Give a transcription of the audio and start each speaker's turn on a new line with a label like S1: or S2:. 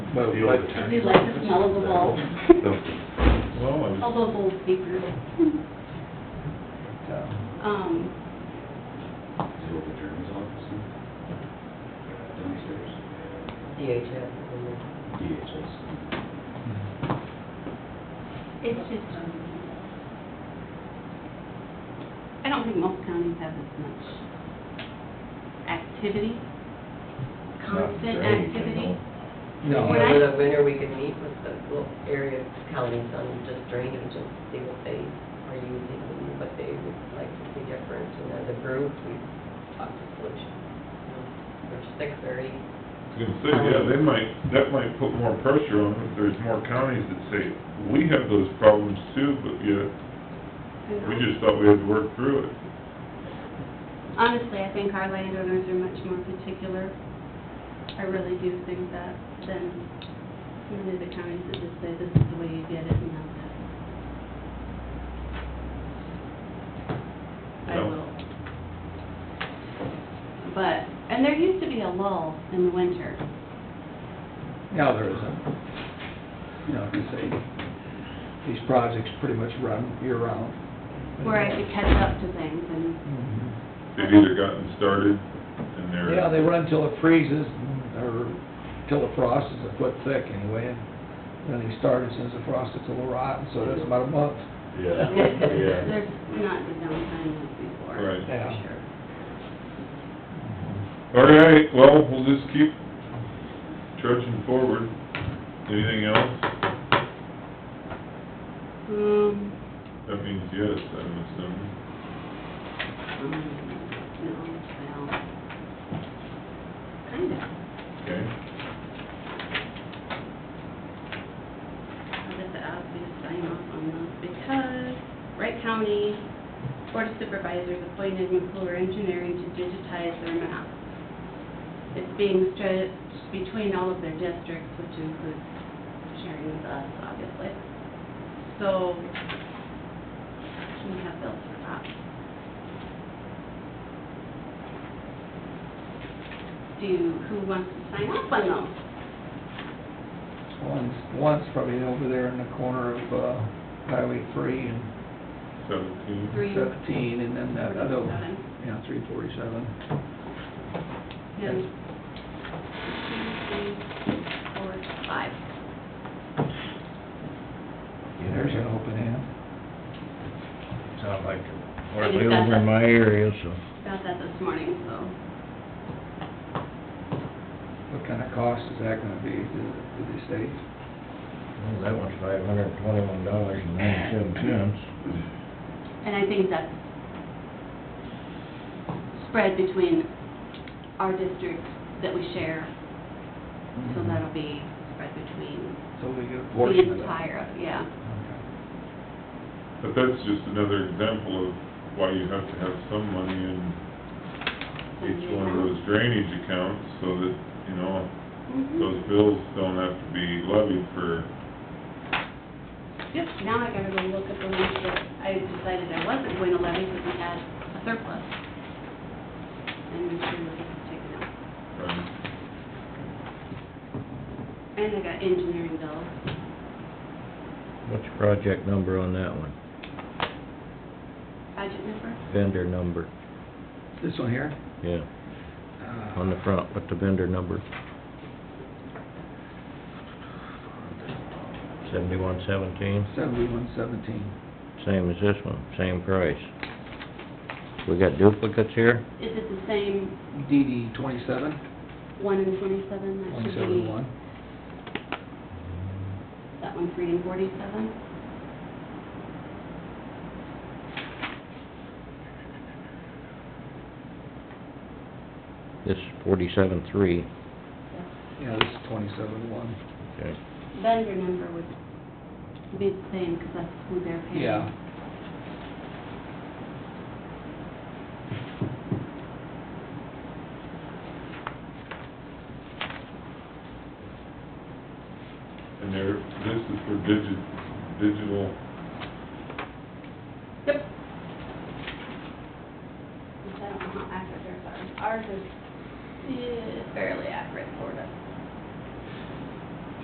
S1: But
S2: The old attorney.
S3: We like the smell of the bulb,
S2: Well, I was-
S3: although old speakers. Um,
S4: The old attorney's office huh? downstairs,
S5: DHS.
S4: DHS.
S3: it's just, I don't think most counties have as much activity, constant activity.
S1: No,
S3: When I-
S5: Over the winter, we could meet with the little area counties on just drainage and see what they are using and what they would like to see different. And as a group, we talked to solutions. There's six or eight
S2: I was gonna say, yeah, they might, that might put more pressure on if there's more counties that say, we have those problems too, but yet, we just thought we had to work through it.
S3: Honestly, I think our landowners are much more particular. I really do think that than many of the counties that just say, this is the way you get it and that's it. I
S2: Yeah.
S3: will. But, and there used to be a lull in the winter.
S1: Now there isn't. You know, you say, these projects pretty much run year-round.
S3: where I could catch up to things and,
S1: Mhm.
S2: They've either gotten started and they're.
S1: Yeah, they run till it freezes, or till the frost is a foot thick anyway, and then they start as soon as the frost gets a little rotten, so that's about a month.
S2: Yeah, yeah.
S3: there's not the downtime as before.
S2: Right.
S1: Yeah.
S3: For sure.
S2: All right, well, we'll just keep trudging forward. Anything else?
S3: Um,
S2: That means yes, I'm assuming.
S3: no, well, kind of.
S2: Okay.
S3: I'll get the obvious sign off on those because Wright County Board of Supervisors appointed McClure Engineering to digitize their map. It's being stretched between all of their districts, which includes sharing with us, obviously. So we have bills for that. Do, who wants to sign off on those?
S1: One's, one's probably over there in the corner of uh, Highway three and
S2: Seventeen.
S3: Three.
S1: seventeen, and then that other one,
S3: Seven.
S1: yeah, three forty-seven.
S3: Yeah. One, two, three, four, five.
S1: There's an open end.
S6: Sound like,
S3: I
S6: or
S3: just
S6: they
S3: got
S6: over in
S3: that.
S6: my area, so.
S3: Got that this morning, so.
S1: What kind of cost is that gonna be to the state?
S6: Well, that one's five hundred and twenty-one dollars and ninety-seven cents.
S3: And I think that's spread between our districts that we share. So that'll be spread between
S1: So we get a portion
S3: the
S1: of that.
S3: entire, yeah.
S1: Okay.
S2: But that's just another example of why you have to have some money in each one of those drainage accounts so that, you know,
S3: Mhm.
S2: those bills don't have to be levied for,
S3: Yep, now I gotta go look at the ones that I decided I wasn't going to levy because we had a surplus. And we should have taken out.
S2: um,
S3: And I got engineering bills.
S6: What's your project number on that one?
S3: Budget number?
S6: Vendor number,
S1: This one here?
S6: yeah,
S1: Uh,
S6: on the front, with the vendor number? Seventy-one seventeen,
S1: Seventy-one seventeen.
S6: same as this one, same price. We got duplicates here?
S3: Is it the same
S1: DD twenty-seven,
S3: one and twenty-seven? That should
S1: twenty-seven
S3: be-
S1: one.
S3: That one's reading forty-seven?
S6: This forty-seven three,
S1: Yeah, this is twenty-seven one.
S6: okay.
S3: Vendor number would be the same, because that's who they're paying.
S1: Yeah.
S2: and there, this is for digi, digital,
S3: Yep. Which I don't know how accurate theirs are. Ours is eh, fairly accurate, sort of.